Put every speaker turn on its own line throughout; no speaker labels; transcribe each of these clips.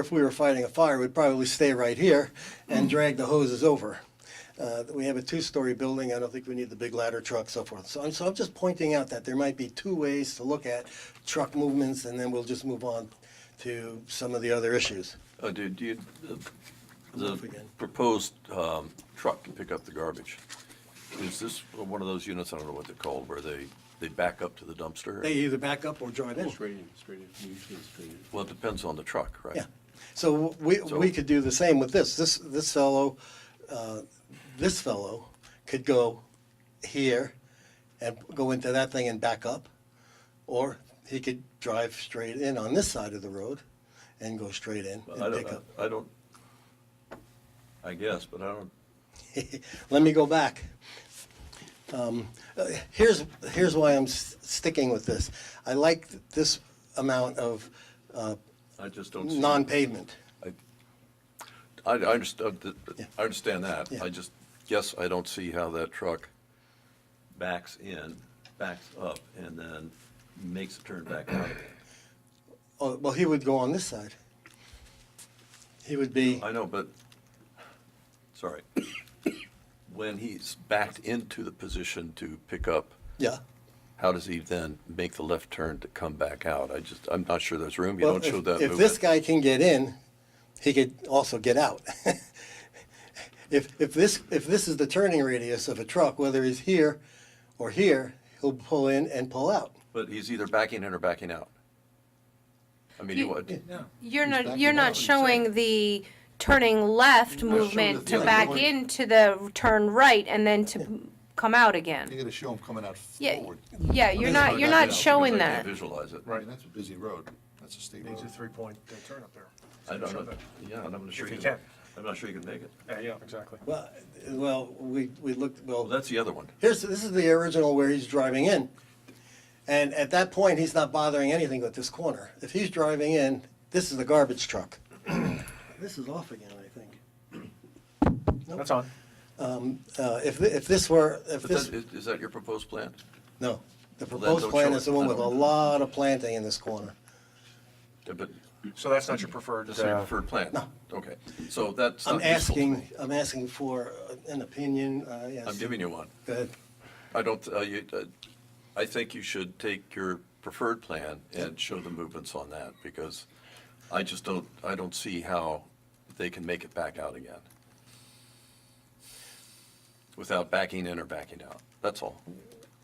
If we were fighting a fire, we'd probably stay right here and drag the hoses over. Uh, We have a two-story building, I don't think we need the big ladder truck, so forth. So I'm, so I'm just pointing out that there might be two ways to look at truck movements, and then we'll just move on to some of the other issues.
Uh, do, do you, the-
off
the
again.
proposed, um, truck to pick up the garbage, is this one of those units, I don't know what they're called, where they, they back up to the dumpster?
They either back up or drive in.
Straight in, straight in, usually it's straight in.
Well, it depends on the truck, right?
Yeah, so we, we could do the same with this, this, this fellow, uh, this fellow could go here and go into that thing and back up, or he could drive straight in on this side of the road and go straight in
Well, I
and pick
don't,
up.
I don't, I guess, but I don't,
Let me go back. Um, uh, Here's, here's why I'm s- sticking with this. I like this amount of uh,
I just don't see.
non-pavement.
I, I I understand, th- th-
Yeah.
I understand that.
Yeah.
I just, guess I don't see how that truck backs in, backs up, and then makes a turn back out again.
Oh, well, he would go on this side. He would be,
I know, but, sorry. When he's backed into the position to pick up,
yeah.
how does he then make the left turn to come back out? I just, I'm not sure there's room. You
Well,
don't show
if-
that
If this
movement.
guy can get in, he could also get out. If, if this, if this is the turning radius of a truck, whether he's here or here, he'll pull in and pull out.
But he's either backing in or backing out. I mean, you
You-
would,
You're
He's backing
not, you're
out,
not
he's
showing the turning left
not showing
movement
the
to
turn
back
going.
into the turn right and then to come out
You
again.
gotta show them coming out
Yeah,
forward.
yeah, you're not, you're not showing
I can't
that.
Visualize it.
Right, and that's a busy road. That's a state road.
Needs a three-point uh, turn up there.
I don't
Show
know,
that.
yeah, and I'm not sure.
If you
can-
can.
I'm not sure you can make it.
Yeah, yeah, exactly.
Well, well, we, we looked,
Well,
well,
that's the other one.
here's, this is the original where he's driving in. And at that point, he's not bothering anything with this corner. If he's driving in, this is the garbage truck. This is off again, I think.
That's on.
Uh, if, thi- if this were, if
But
this.
that, is, is that your proposed plan?
No, the
Well, then
proposed
don't
plan
show
is
it.
the one with a
I don't-
lot of planting in this corner.
Yeah, But
Uh,
So that's not your preferred,
that's your
uh,
preferred plan? Okay, so that's
I'm
not useful to
asking,
me.
I'm asking for an opinion, uh, yes.
I'm giving you one.
Go ahead.
I don't, uh, you, uh, I think you should take your preferred plan and show the movements on that, because I just don't, I don't see how they can make it back out again. Without backing in or backing out, that's all.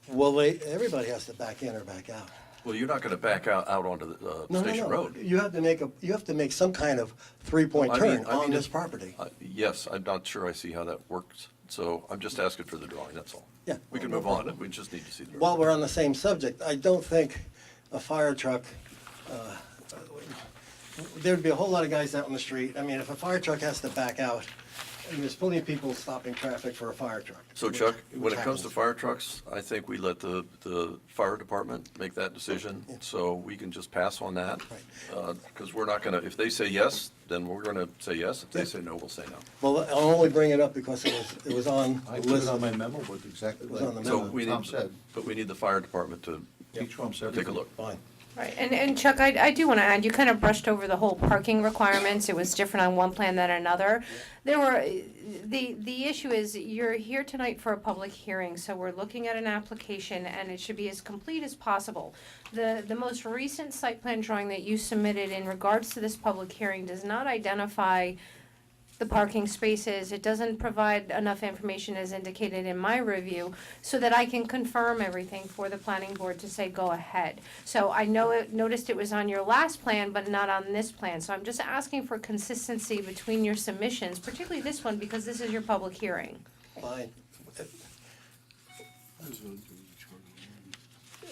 Well, wait, everybody has to back in or back out.
Well, you're not gonna back out, out onto the,
No,
uh,
no,
Station
no,
Road.
you have to make a, you have to make some kind of three-point
I mean-
turn
I mean,
on this
it-
property.
Uh, Yes, I'm not sure I see how that works, so I'm just asking for the drawing, that's all.
Yeah.
We can move on, we just need to see the.
While we're on the same subject, I don't think a fire truck, uh, there'd be a whole lot of guys out on the street. I mean, if a fire truck has to back out, and there's plenty of people stopping traffic for a fire truck.
So
which-
Chuck, when
which
it comes to
happens.
fire trucks, I think we let the, the fire department make that decision, so we can just pass on that. Because we're not gonna, if they say yes, then we're gonna say yes, if they say no, we'll say no.
Well, I'll only bring it up because it was, it was on
I
the
put it
list.
on my memo, but exactly
was
like
on the
So
memo.
we
Tom
need,
said.
but we need the fire department to
He trumps everything.
take a look.
Fine.
Right, and, and Chuck, I, I do want to add, you kind of brushed over the whole parking requirements, it was different on one plan than another. There were, the, the issue is, you're here tonight for a public hearing, so we're looking at an application, and it should be as complete as possible. The, the most recent site plan drawing that you submitted in regards to this public hearing does not identify the parking spaces. It doesn't provide enough information as indicated in my review so that I can confirm everything for the planning board to say go ahead. So I know it, noticed it was on your last plan, but not on this plan. So I'm just asking for consistency between your submissions, particularly this one, because this is your public hearing.
Fine.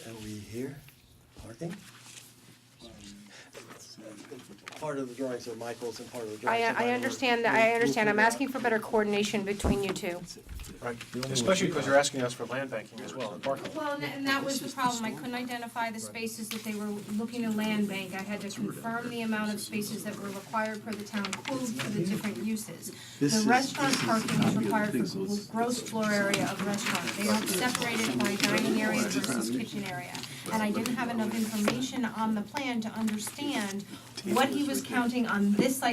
Are we here? Parking? Part of the drawings are Michael's and part of the drawings
I,
are mine.
I understand, that- I understand. I'm asking for better coordination between you two.
right,
only one
especially
we
because
got.
you're asking us for land banking as well, and parking.
Well, and- and that was the problem, I couldn't identify the spaces that they were looking to land bank, I had to confirm the amount of spaces that were required per the town code for the different uses. The restaurant parking is required for gl- gross floor area of restaurant, they don't separate it by dining area versus kitchen area. and I didn't have enough information on the plan to understand what he was counting on this site